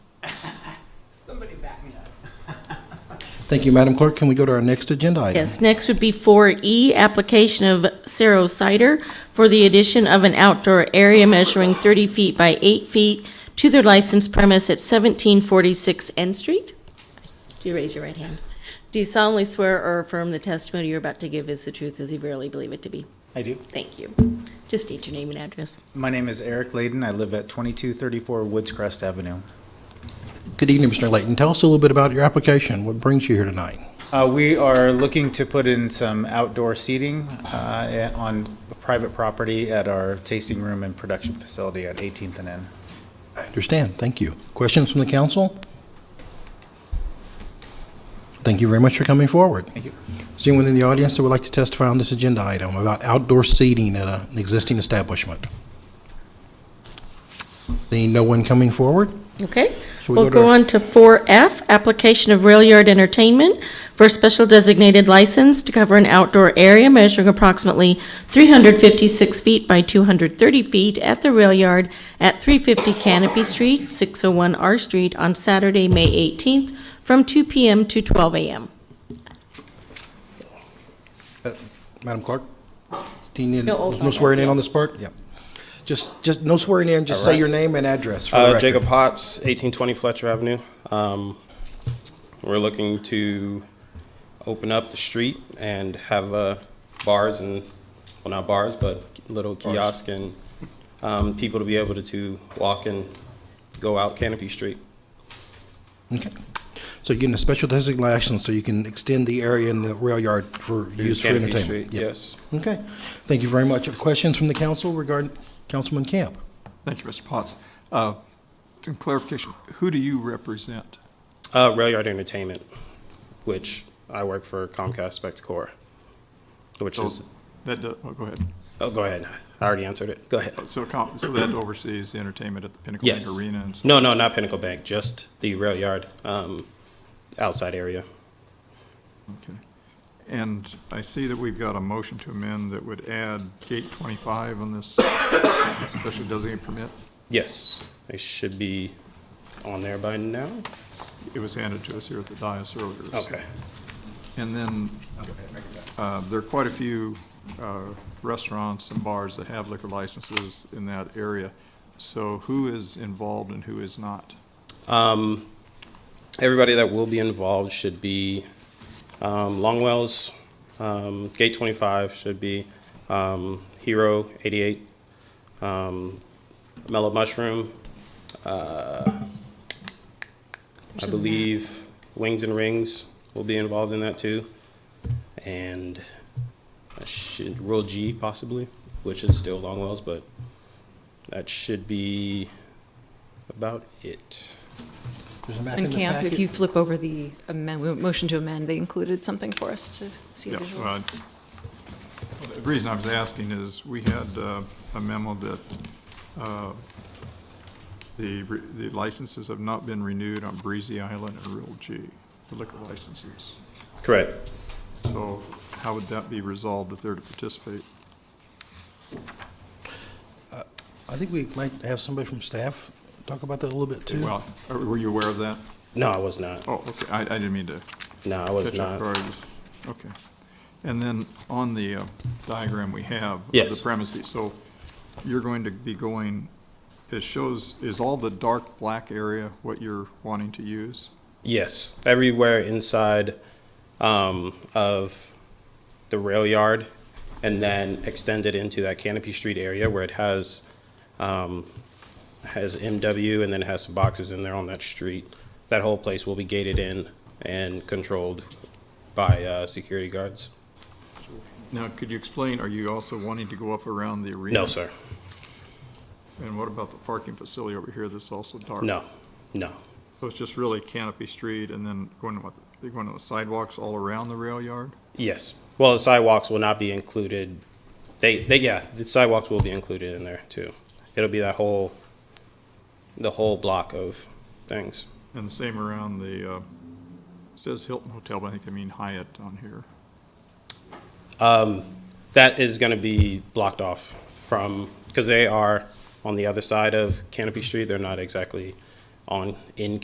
Somebody back me up. Thank you, Madam Clerk. Can we go to our next agenda item? Yes, next would be 4E, application of Cerro Cider for the addition of an outdoor area measuring 30 feet by 8 feet to their licensed premise at 1746 N Street. Do you raise your right hand? Do you solemnly swear or affirm the testimony you're about to give is the truth as you verily believe it to be? I do. Thank you. Just state your name and address. My name is Eric Layden. I live at 2234 Woods Crest Avenue. Good evening, Mr. Layton. Tell us a little bit about your application. What brings you here tonight? Uh, We are looking to put in some outdoor seating uh, on private property at our tasting room and production facility at 18th and N. I understand. Thank you. Questions from the council? Thank you very much for coming forward. Thank you. Is there anyone in the audience that would like to testify on this agenda item about outdoor seating at a- an existing establishment? Seeing no one coming forward? Okay, Shall we we'll go to- go on to 4F, application of rail yard entertainment for a special designated license to cover an outdoor area measuring approximately 356 feet by 230 feet at the rail yard at 350 Canopy Street, 601 R Street on Saturday, May 18th, from 2 PM to 12 AM. Madam Clerk? Do you need, No, old no swearing in bylaws, on this part? Yeah. Just, just, no swearing in, just say your name and address for the Uh, record. Jacob Potts, 1820 Fletcher Avenue. Um, We're looking to open up the street and have uh, bars and, well, not bars, but little kiosk and um, people to be able to- to walk and go out Canopy Street. Okay. So you're getting a special designated license so you can extend the area in the rail yard for use for Canopy entertainment? Street, Yeah. Yes. Okay. Thank you very much. Questions from the council regarding Councilman Camp? Thank you, Mr. Potts. Uh, Some clarification, who do you represent? Uh, Rail Yard Entertainment, which I work for Comcast Spectacor, which is, That, do- oh, go ahead. oh, go ahead. I already answered it. Go ahead. So, com- so that oversees the entertainment at the Pinnacle Bank Yes. Arena and so? No, no, not Pinnacle Bank, just the rail yard, um, outside area. Mm-hmm. Okay. And I see that we've got a motion to amend that would add gate 25 on this special designated permit. Yes, they should be on there by now. It was handed to us here at the dais earlier. so- Okay. And then, uh, there are quite a few uh, restaurants and bars that have liquor licenses in that area. So who is involved and who is not? Um, everybody that will be involved should be, um, Longwell's, um, Gate twenty-five should be, um, Hero eighty-eight, um, Mellow Mushroom, uh, I believe Wings and Rings will be involved in that too. And I should, Royal G possibly, which is still Longwell's, but that should be about it. There's a map in And the Camp, if packet. you flip over the amend, motion to amend, they included something for us to see Yeah, visually. well, the reason I was asking is, we had uh, a memo that uh, the re- the licenses have not been renewed on Breezy Island and Real G, the liquor licenses. Correct. So how would that be resolved if they're to participate? I think we might have somebody from staff talk about that a little bit too. Well, are- were you aware of that? No, I was not. Oh, okay, I I didn't mean to No, I was catch up not. priorities. Okay. And then on the uh, diagram we have. of Yes. The premises, so you're going to be going, it shows, is all the dark black area what you're wanting to use? Yes, everywhere inside um, of the rail yard and then extended into that Canopy Street area where it has, um, has MW and then has some boxes in there on that street. That whole place will be gated in and controlled by uh, security guards. Now, could you explain, are you also wanting to go up around the arena? No, sir. And what about the parking facility over here that's also dark? No, no. So it's just really Canopy Street and then going to what, you're going to the sidewalks all around the rail yard? Yes. Well, the sidewalks will not be included. They, they, yeah, the sidewalks will be included in there too. It'll be that whole, the whole block of things. And the same around the, uh, it says Hilton Hotel, but I think they mean Hyatt on here. That is going to be blocked off from, because they are on the other side of Canopy Street. They're not exactly on, in